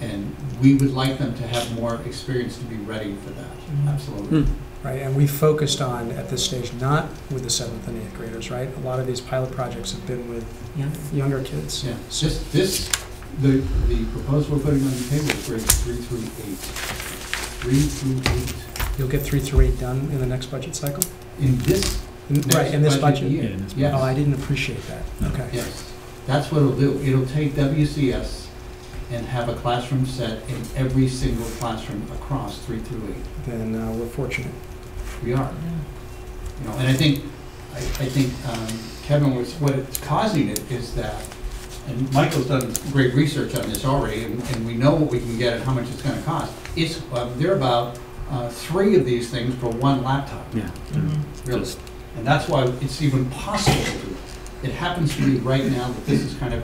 And we would like them to have more experience to be ready for that, Mm-hmm. absolutely. Right, and we focused on, at this stage, not with the seventh and eighth graders, right? A lot of these pilot projects have been with Yeah. younger kids. Yeah, it's just this, the, the proposal we're putting on the table is grades three through eight. Three through eight, You'll get three through eight done in the next budget cycle? in this In- next Right, in this budget budget? year. in this Yes. Oh, I didn't appreciate that, okay. Yes, that's what it'll do. It'll take WCS and have a classroom set in every single classroom across three through eight. Then uh, we're fortunate. We are, you know, and I think, I, I think um, Kevin was, what it's causing it is that, and Michael's done great research on this already, and, and we know what we can get and how much it's gonna cost. It's, um, they're about, uh, three of these things for one laptop, Yeah. really. Just- And that's why it's even possible to do it. It happens to be right now that this is kind of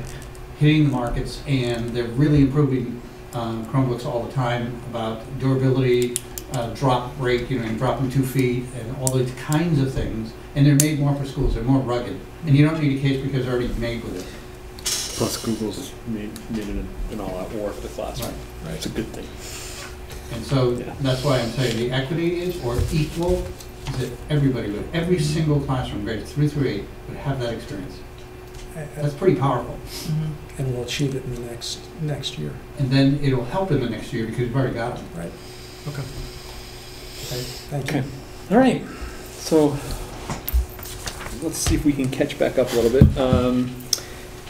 hitting the markets, and they're really improving um, Chromebooks all the time about durability, uh, drop rate, you know, and dropping two feet, and all those kinds of things. And they're made more for schools, they're more rugged. And you don't need a case because they're already made with it. Plus Google's made, made it an all-out war for the classroom. It's a good thing. And so Yeah. that's why I'm saying the equity is, or equal, is that everybody would, every single classroom, grades three through eight, would have that experience. A- That's pretty powerful. a- And we'll achieve it in the next, next year. And then it'll help in the next year because we've already got them. Okay. Okay. Thank you. Okay. All right, so let's see if we can catch back up a little bit. Um,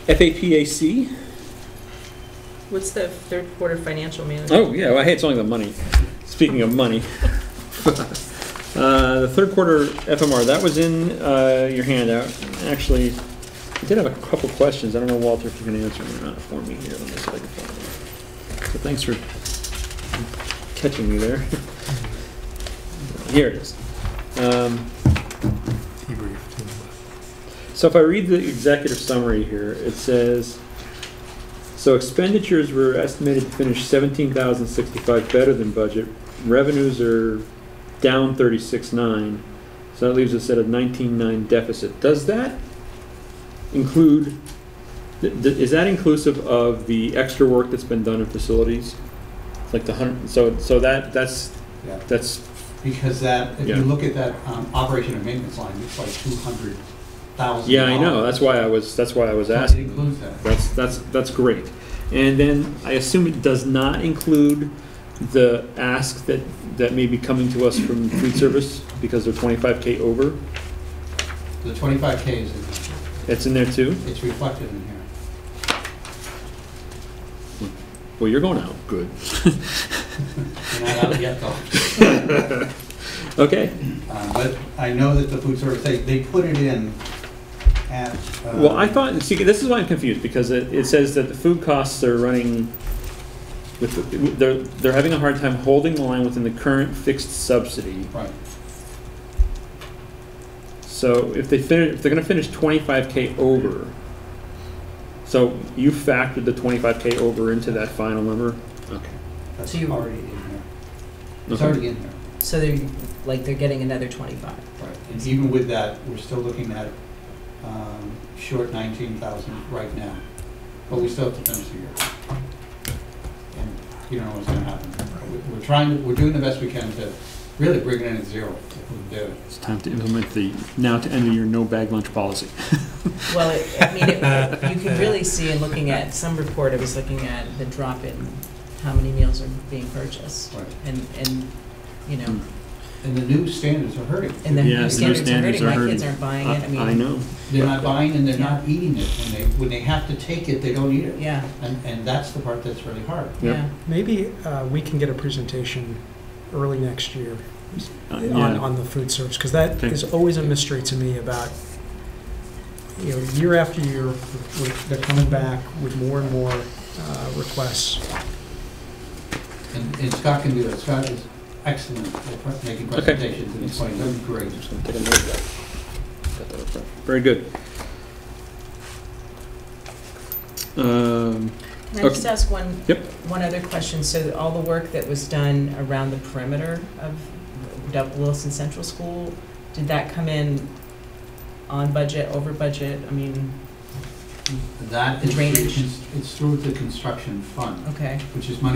FAPAC, What's the third quarter financial management? oh yeah, well, hey, it's only the money. Speaking of money. Uh, the third quarter FMR, that was in, uh, your handout. Actually, I did have a couple questions. I don't know, Walter, if you can answer them or not for me here. Let me see if I can find them. So thanks for catching me there. Here it is. Um, So if I read the executive summary here, it says, so expenditures were estimated to finish seventeen thousand sixty-five better than budget. Revenues are down thirty-six nine, so that leaves us at a nineteen nine deficit. Does that include, th- th- is that inclusive of the extra work that's been done in facilities? Like the hundred, so, so that, that's, Yeah. that's, Because that, if you Yeah. look at that um, operation and maintenance line, it's like two hundred thousand. yeah, I know, that's why I was, that's why I was It asking. includes that. That's, that's, that's great. And then I assume it does not include the ask that, that may be coming to us from food service because they're twenty-five K over. The twenty-five K is, in- That's in there too. it's reflected in here. Well, you're going out. Good. We're not out yet though. Okay. Uh, But I know that the food service, they, they put it in at. uh, Well, I thought, see, this is why I'm confused because it, it says that the food costs are running with, the- they're, they're having a hard time holding the line within the current fixed subsidy. Right, So if they finish, if they're gonna finish twenty-five K over, so you factored the twenty-five K over into that final number? Okay. that's So you- already in here. It's already in here, So they're, like, they're getting another twenty-five. right. And even with that, we're still looking at um, short nineteen thousand right now. But we still have to finish the year. And you don't know what's gonna happen. We- We're trying, we're doing the best we can to really bring it in at zero if we do it. It's time to implement the, now to end your no bag lunch policy. Well, it- I mean, it- it- you can really see in looking at, some report I was looking at, the drop in, how many meals are being purchased. Right. And, and, you know, And the new standards are hurting. and the Yeah, the new new standards are standards hurting, are my kids hurting. aren't buying it, I mean. I know. They're not buying and they're not eating it. When they, when they have to take it, they don't eat it. Yeah, And, and that's the part that's really hard. Yeah. yeah. Maybe uh, we can get a presentation early next year Uh, on, Yeah, on the food service, because that Okay. is always a mystery to me about, you know, year after year, we're- they're coming back with more and more uh, requests. And, and Scott can do that. Scott is excellent at pre- making Okay. presentations and explaining. That'd be great. Just gonna take a note of that. Got that up front. Very good. Um, Can I just ask one? Yep. One other question, so all the work that was done around the perimeter of Dub- Wilson Central School, did that come in on budget, over budget, I mean, That is, Drainage. it's- it's through the construction fund, okay? which is money